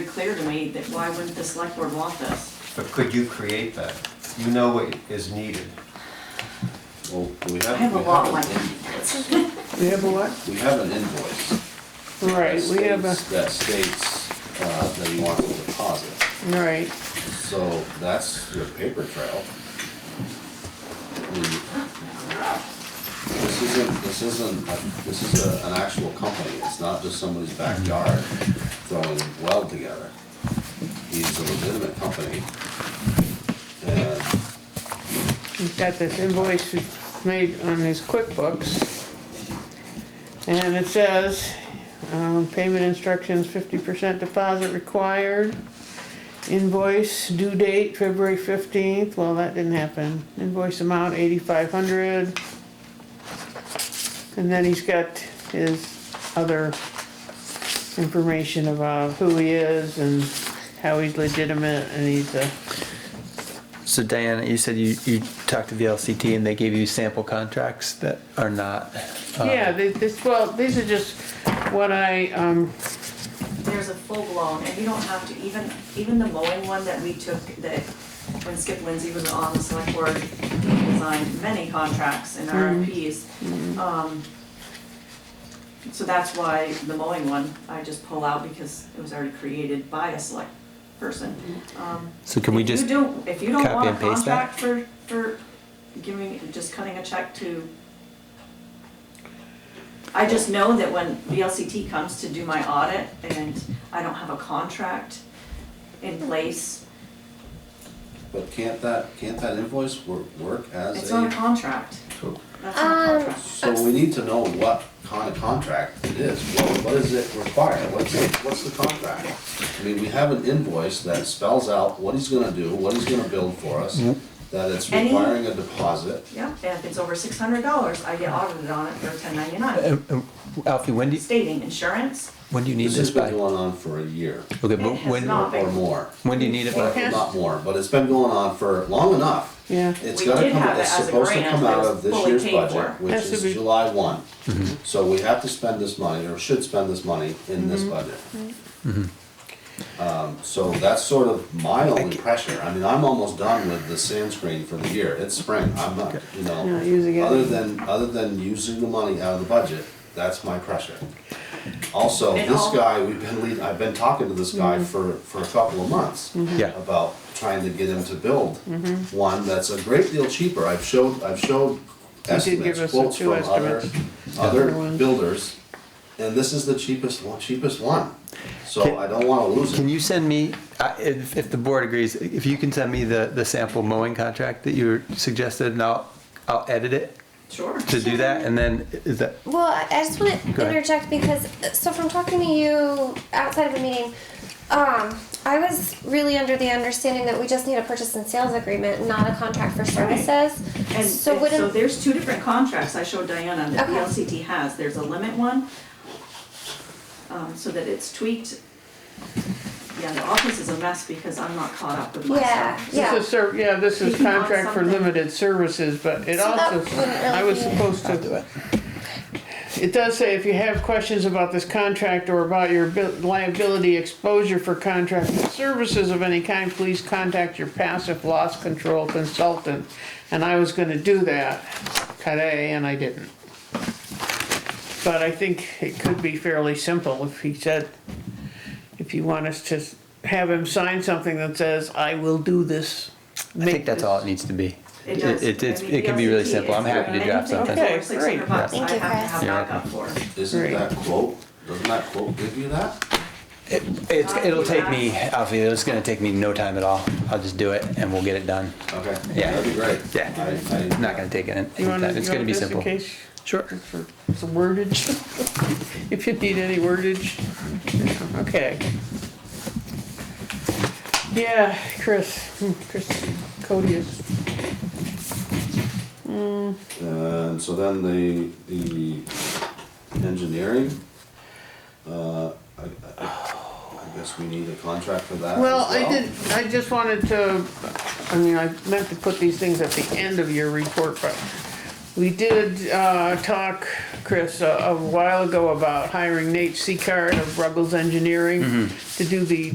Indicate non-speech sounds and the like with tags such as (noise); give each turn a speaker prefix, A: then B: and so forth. A: clear to me that why wouldn't the select board want this?
B: But could you create that? You know what is needed.
C: Well, we have.
A: I have a
C: we
A: lot
C: an
A: like that.
C: invoice.
D: We have a what?
C: (laughs) We have an invoice. that
D: Right, we have a,
C: states- That states, uh, that he wants a deposit,
D: right,
C: so that's your paper trail. I mean, This isn't, this isn't, a- this is a- an actual company, it's not just somebody's backyard throwing weld together. He's a legitimate company. And
D: we've got this invoice we made on his QuickBooks. And it says, um, payment instructions, fifty percent deposit required. Invoice due date February fifteenth, well, that didn't happen. Invoice amount eighty-five hundred. And then he's got his other information about who he is and how he's legitimate and he's a.
E: So Diana, you said you, you talked to VLCT and they gave you sample contracts that are not. uh,
D: Yeah, thi- this, well, these are just what I, um,
A: There's a full blown, and you don't have to, even, even the mowing one that we took, that when Skip Lindsey was on the select board, he designed many contracts and RFPs. Um, So that's why the mowing one, I just pull out because it was already created by a select person. Um,
E: So can we
A: If you
E: just,
A: don't- If you don't
E: copy
A: want a
E: and paste that?
A: contract for, for giving, just cutting a check to. I just know that when VLCT comes to do my audit and I don't have a contract in place,
C: But can't that, can't that invoice work, work
A: it's
C: as
A: not a
C: a,
A: contract.
B: So-
A: That's not a
F: Um,
A: contract.
C: so we need to know what kind of contract it is, what, what does it require, what's, it- what's the contract? I mean, we have an invoice that spells out what he's gonna do, what he's gonna build for us, that it's
A: Any-
C: requiring a deposit.
A: Yeah, and if it's over six hundred dollars, I get audited on it for ten ninety-nine,
E: Um, um, Alfie, when do you,
A: stating insurance.
E: when do you need
C: This
E: this
C: has been
E: by?
C: going on for a year,
E: Okay,
A: It
E: but
A: has
E: when,
A: not.
C: or more,
E: when do you need it
D: Well,
E: by?
D: it
C: not more, but it's been going on for long enough.
D: yeah,
C: It's
A: We
C: gotta
A: did
C: come,
A: have it
C: it's
A: as a
C: supposed to
A: grant
C: come
A: that
C: out
A: was
C: of this
A: fully
C: years
A: paid
C: budget,
A: for.
C: which
D: Has to
C: is
D: be-
C: July one. So we have to spend this money, or should spend this money in this budget. Um, so that's sort of my only pressure, I mean, I'm almost done with the sand screen for the year, it's spring, I'm not, you
D: Not using
C: know.
D: it.
C: Other than, other than using the money out of the budget, that's my pressure. Also,
A: And
C: this
A: all-
C: guy, we've been lead, I've been talking to this guy
D: Mm-hmm.
C: for, for a couple of months
E: Yeah.
C: about trying to get him to build
D: Mm-hmm.
C: one that's a great deal cheaper. I've showed, I've showed
D: did give
C: estimates,
D: us the
C: quotes
D: two
C: from other,
D: estimates. Other
C: other
D: ones.
C: builders, and this is the cheapest, one cheapest one.
E: Can-
C: So I don't wanna lose
E: Can
C: it.
E: you send me, I- if, if the board agrees, if you can send me the, the sample mowing contract that you suggested and I'll, I'll edit it
A: Sure.
E: to do that and then is that,
F: Well, I I just want
E: Go
F: to
E: ahead.
F: interject because so from talking to you outside of the meeting, um, I was really under the understanding that we just need a purchase and sales agreement, not a contract for
A: Right.
F: services.
A: And
F: so
A: and so
F: wouldn't
A: there's two different contracts I showed Diana that
F: Okay.
A: VLCT has, there's a limit one, um, so that it's tweaked. Yeah, the office is a mess because I'm not caught up with my
F: yeah
A: stuff.
D: this
F: yeah
D: is ser, yeah, this is
A: If you want
D: contract for
A: something-
D: limited services, but it
F: So that
D: also,
F: wouldn't really
D: I was
F: be-
D: supposed to. It does say if you have questions about this contract or about your abil- liability exposure for contracted services of any kind, please contact your passive loss control consultant. And I was gonna do that today and I didn't. But I think it could be fairly simple if he said, if you want us to have him sign something that says, I will do this.
E: I think that's all it needs to be.
A: It does.
E: It, it's-
A: I mean,
E: it can be really
A: VLCT
E: simple. I'm
A: is-
E: happy to draft
A: anything
E: something.
A: that's
D: Okay,
A: over
D: great.
A: 600 bucks,
F: Thank
A: I
F: you,
A: have to
E: Chris.
A: have backup for.
C: Isn't
D: Right.
C: that quote, doesn't that quote give you that?
E: It, it's, it'll take me, Alfie, it's gonna take me no time at all. I'll just do it and we'll get it done.
C: Okay,
E: Yeah.
C: that'd be great.
E: Yeah.
C: I, I.
E: Not gonna take it in,
D: You want
E: anytime. it's gonna be simple.
D: In case,
E: Sure.
D: for some wordage, (laughs) if you need any wordage, okay. Yeah, Chris, hmm, Chris Cody is,
C: And so then the, the engineering, uh, I, I, I guess we need a contract for that as well.
D: well, I did, I just wanted to, I mean, I meant to put these things at the end of your report, but we did, uh, talk, Chris, a a while ago about hiring Nate Seacard of Ruggles Engineering to do the